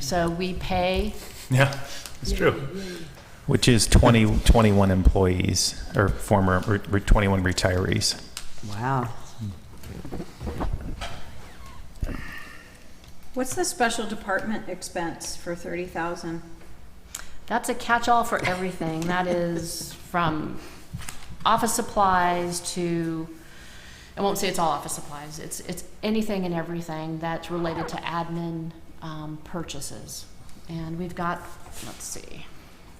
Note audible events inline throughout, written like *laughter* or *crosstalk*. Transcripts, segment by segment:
So we pay, Yeah, it's true. Which is 20, 21 employees or former re- re- 21 retirees. Wow. What's the special department expense for thirty thousand? that's a catch-all for everything. That is from office supplies to, I won't say it's all office supplies. It's, it's anything and everything that's related to admin um, purchases. And we've got, let's see,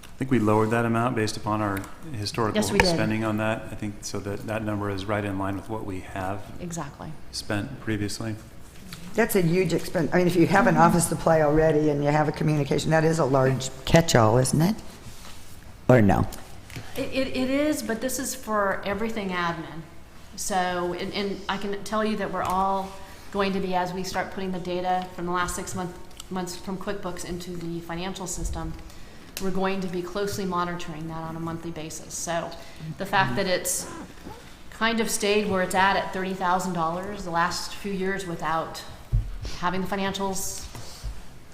I think we lowered that amount based upon our historical Yes, we did. spending on that. I think so that that number is right in line with what we have exactly. spent previously. That's a huge expense. I mean, if you have an office supply already and you have a communication, that is a large catch-all, isn't it? Or no? It, it, it is, but this is for everything admin. So, and, and I can tell you that we're all going to be, as we start putting the data from the last six month, months from QuickBooks into the financial system, we're going to be closely monitoring that on a monthly basis. So the fact that it's kind of stayed where it's at at thirty thousand dollars the last few years without having the financials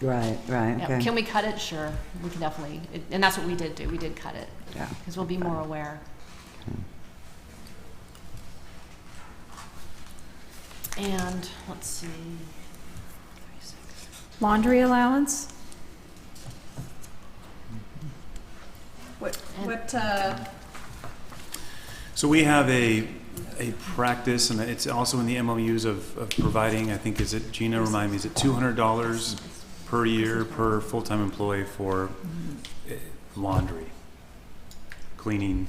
Right, right, yeah, Can we cut it? Sure, we can definitely, it- and that's what we did do, we did cut it. Yeah. Because we'll be more aware. And, let's see. Laundry allowance? What, And- what, uh, So we have a, a practice, and it's also in the MOUs of, of providing, I think, is it, Gina, remind me, is it two hundred dollars per year per full-time employee for eh, laundry, cleaning,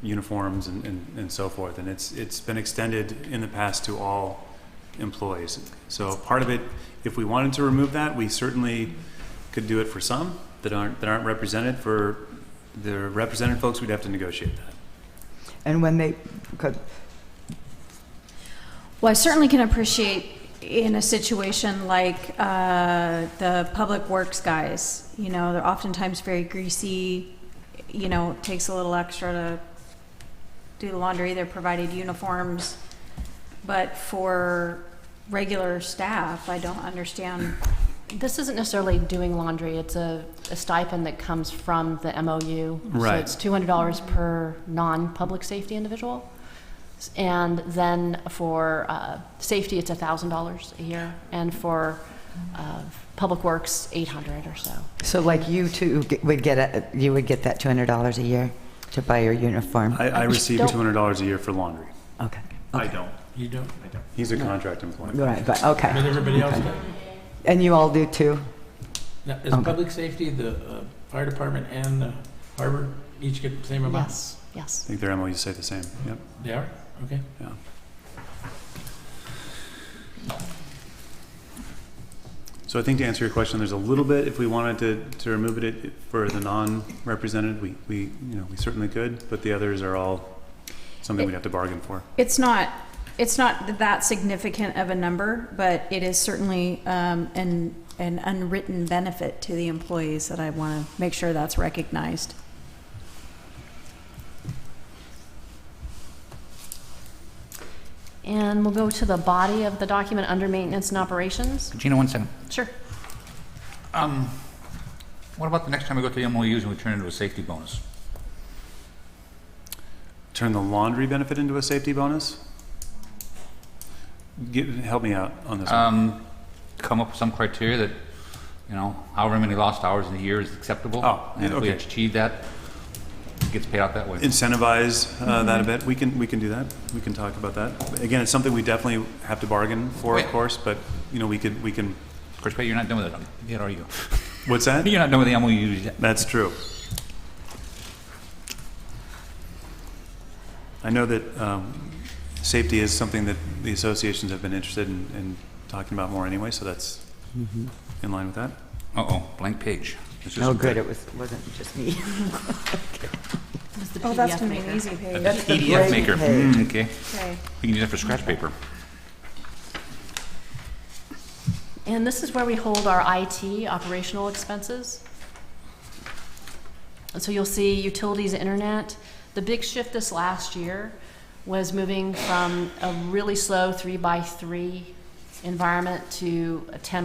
uniforms and, and, and so forth? And it's, it's been extended in the past to all employees. So part of it, if we wanted to remove that, we certainly could do it for some that aren't, that aren't represented. For the represented folks, we'd have to negotiate that. And when they, could- Well, I certainly can appreciate in a situation like uh, the public works guys, you know, they're oftentimes very greasy, you know, it takes a little extra to do the laundry, they're provided uniforms. But for regular staff, I don't understand. This isn't necessarily doing laundry, it's a a stipend that comes from the MOU. So Right. it's two hundred dollars per non-public safety individual. S- And then for uh, safety, it's a thousand dollars a year, and for uh, public works, eight hundred or so. so like you too ge- would get, a- you would get that $200 a year to buy your uniform? I, I receive don't- two hundred dollars a year for laundry. Okay. I don't. You don't? I don't. He's a contract employee. Right, but, okay. But everybody else does. And you all do too? Now, is Okay. public safety, the uh, fire department and the harbor each get the same amount? Yes, yes. I think their MOUs say the same. Yep. They are? Okay. So I think to answer your question, there's a little bit, if we wanted to, to remove it it for the non-represented, we, we, you know, we certainly could, but the others are all something we'd have to bargain for. It's not, it's not that significant of a number, but it is certainly um, an, an unwritten benefit to the employees that I want to make sure that's recognized. And we'll go to the body of the document under maintenance and operations. Gina, one second. Sure. Um, what about the next time we go to the MOUs and we turn it into a safety bonus? Turn the laundry benefit into a safety bonus? Get, help me out on this one. Um, come up with some criteria that, you know, however many lost hours in a year is acceptable. Oh, And if we okay. achieve that, it gets paid out that way. Incentivize, uh, that a bit. We can, we can do that. We can talk about that. Again, it's something we definitely have to bargain for, of Wait. course, but, you know, we could, we can, Of course, but you're not done with it yet, are you? what's that? You're not done with the MOUs yet. That's true. I know that um, safety is something that the associations have been interested in, in talking about more anyway, so that's in line with that. Uh-oh, blank page. It's just- Oh, good, it was, wasn't just me. *laughs* This is the Oh, that's PDF going to be maker. an easy page. That's the PDF great maker. page. Mm, okay. Okay. We can use that for scratch paper. And this is where we hold our IT operational expenses. And so you'll see utilities, internet. The big shift this last year was moving from a really slow three by three environment to a ten